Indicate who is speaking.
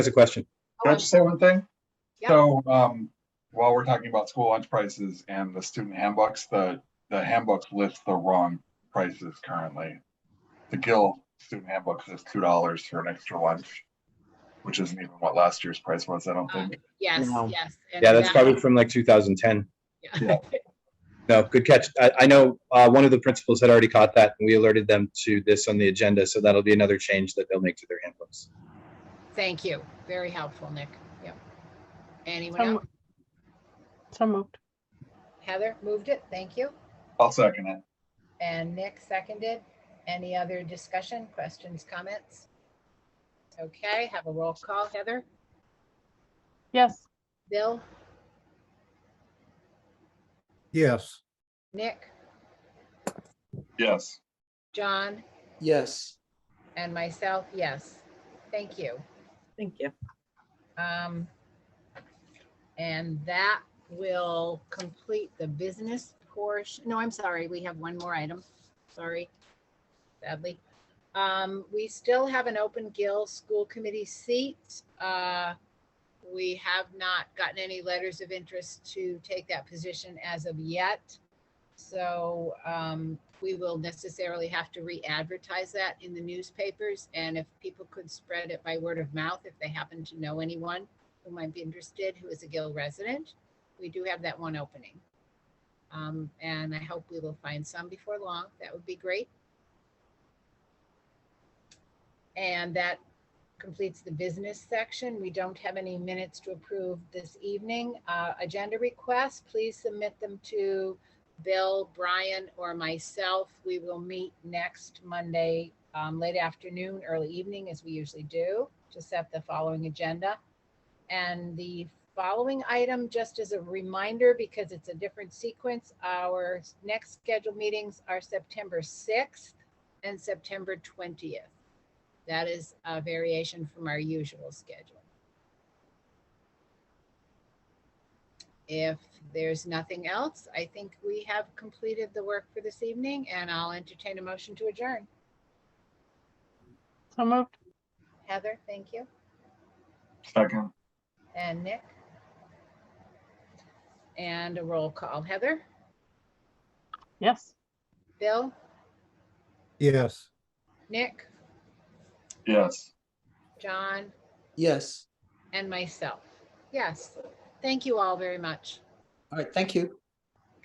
Speaker 1: has a question.
Speaker 2: Can I just say one thing?
Speaker 3: Yeah.
Speaker 2: So, um, while we're talking about school lunch prices and the student handbooks, the, the handbooks list the wrong prices currently. The Gill student handbook says two dollars for an extra lunch, which isn't even what last year's price was, I don't
Speaker 3: Uh,
Speaker 2: think.
Speaker 3: Yes,
Speaker 4: No.
Speaker 3: yes. and uh,
Speaker 1: Yeah, that's
Speaker 3: that-
Speaker 1: probably from like 2010.
Speaker 3: yeah.
Speaker 1: No, good catch. I, I know uh, one of the principals had already caught that and we alerted them to this on the agenda. So that'll be another change that they'll make to their handbooks.
Speaker 3: Thank you. Very helpful, Nick. Yep. Anyone
Speaker 4: So
Speaker 3: else?
Speaker 4: mo- so moved.
Speaker 3: Heather moved it. Thank you.
Speaker 2: I'll second it.
Speaker 3: And Nick seconded. Any other discussion, questions, comments? Okay, have a roll call. Heather,
Speaker 4: Yes,
Speaker 3: Bill,
Speaker 5: Yes,
Speaker 3: Nick,
Speaker 2: Yes,
Speaker 3: John,
Speaker 6: Yes,
Speaker 3: and myself, yes. Thank you.
Speaker 7: Thank you.
Speaker 3: Um, And that will complete the business portion. No, I'm sorry, we have one more item. Sorry, sadly. Um, We still have an open Gill School Committee seat. Uh, We have not gotten any letters of interest to take that position as of yet. So um, we will necessarily have to re-advertise that in the newspapers. And if people could spread it by word of mouth, if they happen to know anyone who might be interested, who is a Gill resident, we do have that one opening. Um, And I hope we will find some before long. That would be great. And that completes the business section. We don't have any minutes to approve this evening. Uh, Agenda requests, please submit them to Bill, Brian, or myself. We will meet next Monday, um, late afternoon, early evening, as we usually do, to set the following agenda. And the following item, just as a reminder, because it's a different sequence, our next scheduled meetings are September 6th and September 20th. That is a variation from our usual schedule. If there's nothing else, I think we have completed the work for this evening and I'll entertain a motion to adjourn.
Speaker 4: so moved.
Speaker 3: Heather, thank you.
Speaker 2: second,
Speaker 3: And Nick? And a roll call. Heather,
Speaker 4: Yes,
Speaker 3: Bill,
Speaker 5: yes.
Speaker 3: Nick,
Speaker 2: yes.
Speaker 3: John,
Speaker 6: yes.
Speaker 3: and myself. Yes. Thank you all very much.
Speaker 6: All right, thank you.